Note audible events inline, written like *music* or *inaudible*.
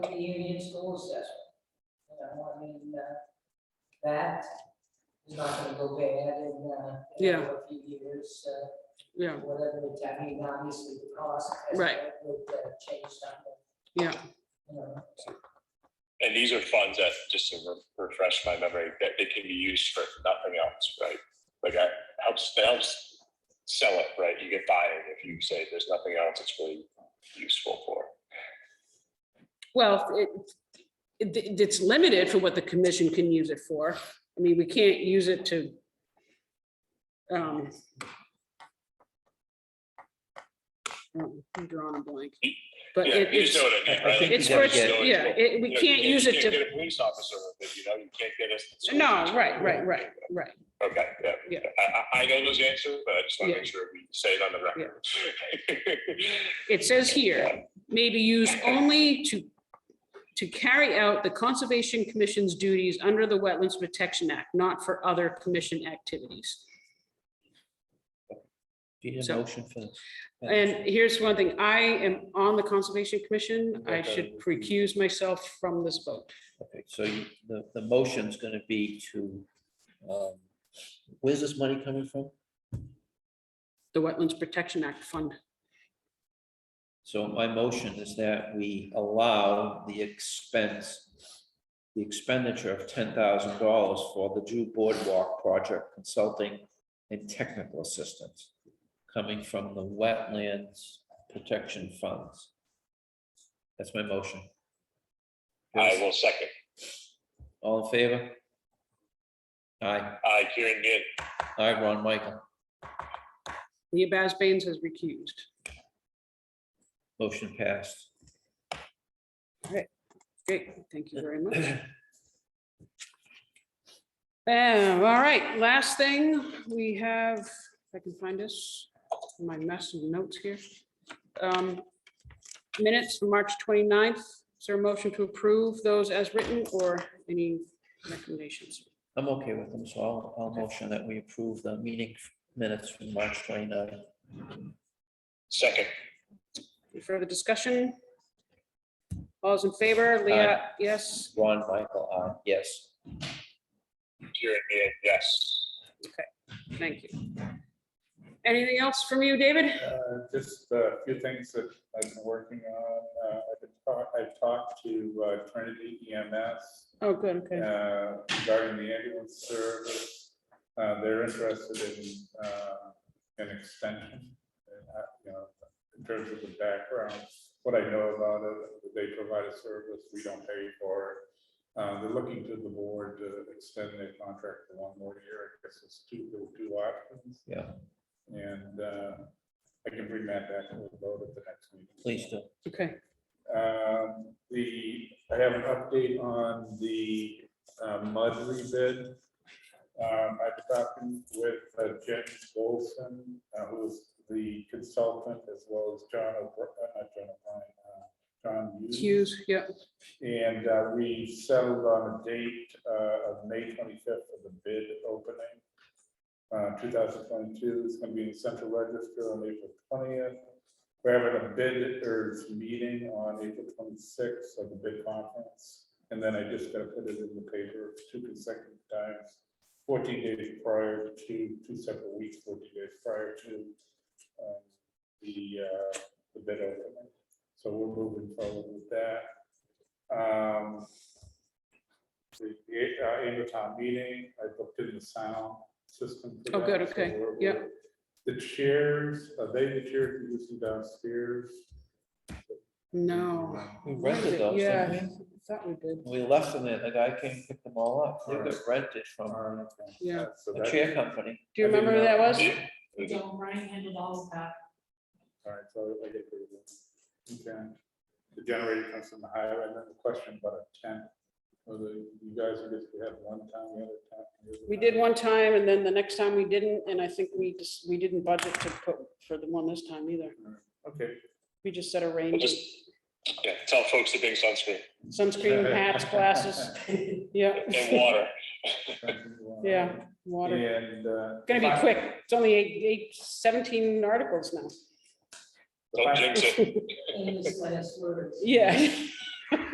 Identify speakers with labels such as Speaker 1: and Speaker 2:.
Speaker 1: the Union School Assessment. You know, I mean, uh, that is not gonna go bad in, uh, in
Speaker 2: Yeah.
Speaker 1: a few years, uh,
Speaker 2: yeah,
Speaker 1: whatever the, I mean, obviously the cost. has-
Speaker 2: Right.
Speaker 1: Would uh, change something,
Speaker 2: yeah,
Speaker 1: you know.
Speaker 3: And these are funds that, just to re- refresh my memory, that they can be used for nothing else, right? Like that helps, that helps sell it, right? You get buy-in if you say there's nothing else it's really useful for.
Speaker 2: well, it, it, it's limited for what the commission can use it for. I mean, we can't use it to. Um. um, I'm drawing a blank, but
Speaker 3: Yeah,
Speaker 2: it-
Speaker 3: you just
Speaker 2: it's,
Speaker 3: know what I mean, right?
Speaker 4: I think
Speaker 3: Like,
Speaker 2: it's,
Speaker 3: you
Speaker 2: for
Speaker 3: just know
Speaker 2: its-
Speaker 3: what
Speaker 2: yeah,
Speaker 3: you-
Speaker 2: it-
Speaker 3: you
Speaker 2: we
Speaker 3: know,
Speaker 2: can't use it
Speaker 3: You can't
Speaker 2: to,
Speaker 3: get a police officer with it, you know, you can't get us.
Speaker 2: no, right, right, right, right.
Speaker 3: Okay, yeah.
Speaker 2: Yeah.
Speaker 3: I, I, I know those answers, but I just want
Speaker 2: Yeah.
Speaker 3: to make sure we say it on the record.
Speaker 2: It says here, may be used only to, to carry out the Conservation Commission's duties under the Wetlands Protection Act, not for other commission activities.
Speaker 4: Do you need a
Speaker 2: So-
Speaker 4: motion for? this?
Speaker 2: And here's one thing, I am on the Conservation Commission. I
Speaker 4: Okay.
Speaker 2: should recuse myself from this vote.
Speaker 4: Okay, so you, the, the motion's gonna be to, um, where's this money coming from?
Speaker 2: The Wetlands Protection Act Fund.
Speaker 4: So my motion is that we allow the expense, the expenditure of ten thousand dollars for the Drew Boardwalk Project Consulting and Technical Assistance coming from the Wetlands Protection Funds. That's my motion.
Speaker 3: *laughs* I will second.
Speaker 4: All in favor? Aye,
Speaker 3: I, Kieran Ginn,
Speaker 4: aye, Ron Michael,
Speaker 2: Leah Basbanes has recused.
Speaker 4: motion passed.
Speaker 2: Great, thank you very much. Um, all right, last thing, we have, if I can find this, my mess of notes here. Um, Minutes from March 29th, is there a motion to approve those as written or any recommendations?
Speaker 4: I'm okay with them, so I'll, I'll motion that we approve the meeting minutes from March 29.
Speaker 3: second.
Speaker 2: Any Further discussion? All's in favor, Leah, yes,
Speaker 4: Ron Michael, aye, yes.
Speaker 3: Kieran Ginn, yes.
Speaker 2: thank you. Anything else from you, David?
Speaker 5: Uh, Just a few things that I've been working on. Uh, I've been talk- I've talked to uh, Trinity EMS
Speaker 2: Oh, good, okay,
Speaker 5: uh, regarding the ambulance service. Uh, They're interested in uh, an extension. and, uh, you know, In terms of the background, what I know about it, they provide a service, we don't pay for it. Uh, They're looking to the board to extend their contract for one more year. I guess it's two, there were two options.
Speaker 4: Yeah,
Speaker 5: And uh, I can bring that back to the vote at the next meeting.
Speaker 4: please do.
Speaker 2: okay,
Speaker 5: Um, The, I have an update on the uh, mud rebid. Um, I've talking with uh, Jen Wilson, uh, who's the consultant, as well as John, O'Br- uh, not John, O'Brien, uh, John Hughes.
Speaker 2: Hughes, yeah,
Speaker 5: And uh, we settled on a date uh, of May twenty-fifth for the bid opening. Uh, two thousand twenty-two, it's gonna be in the central register on April twentieth. We're having a bid or meeting on April twenty-sixth of the bid conference. And then I just gotta put it in the paper two consecutive times, fourteen days prior to, two separate weeks, fourteen days prior to um, the, uh, the bid opening. So we're moving forward with that. Um, The the, uh, annual town meeting, I booked in the sound system. for
Speaker 2: Oh,
Speaker 5: that,
Speaker 2: good,
Speaker 5: so
Speaker 2: okay,
Speaker 5: we're-
Speaker 2: yeah.
Speaker 5: we're- The chairs, are they the chairs you're using downstairs?
Speaker 2: no.
Speaker 4: We rented those,
Speaker 2: Yeah,
Speaker 4: didn't
Speaker 2: I Thought we did.
Speaker 4: we? We left them there, the guy came and picked them all up, they got rented from
Speaker 5: Alright, okay.
Speaker 2: Yeah.
Speaker 5: So
Speaker 4: a
Speaker 5: that-
Speaker 4: chair company.
Speaker 2: Do you
Speaker 5: I didn't
Speaker 2: remember who that
Speaker 5: know.
Speaker 2: was?
Speaker 3: Yeah.
Speaker 6: Don't Brian handled all of that.
Speaker 5: Alright, so I get rid of it. Okay. The generator comes from the highway, and then the question about a tent. Whether you guys, I guess we had one town, the other town. the other
Speaker 2: We
Speaker 5: town.
Speaker 2: did one time and then the next time we didn't, and I think we just, we didn't budget to put for the one this time either.
Speaker 5: Okay.
Speaker 2: We just set a
Speaker 3: We'll
Speaker 2: range,
Speaker 3: just, yeah, tell folks to bring sunscreen
Speaker 5: *laughs*
Speaker 2: sunscreen, hats, glasses, yeah,
Speaker 3: and water.
Speaker 2: Yeah. water.
Speaker 5: And. uh,
Speaker 2: Gonna be
Speaker 5: fi-
Speaker 2: quick, it's only eight, eight, seventeen articles now,
Speaker 5: the
Speaker 3: Don't
Speaker 5: fi-
Speaker 3: jinx it.
Speaker 1: Famous last words.
Speaker 2: yeah.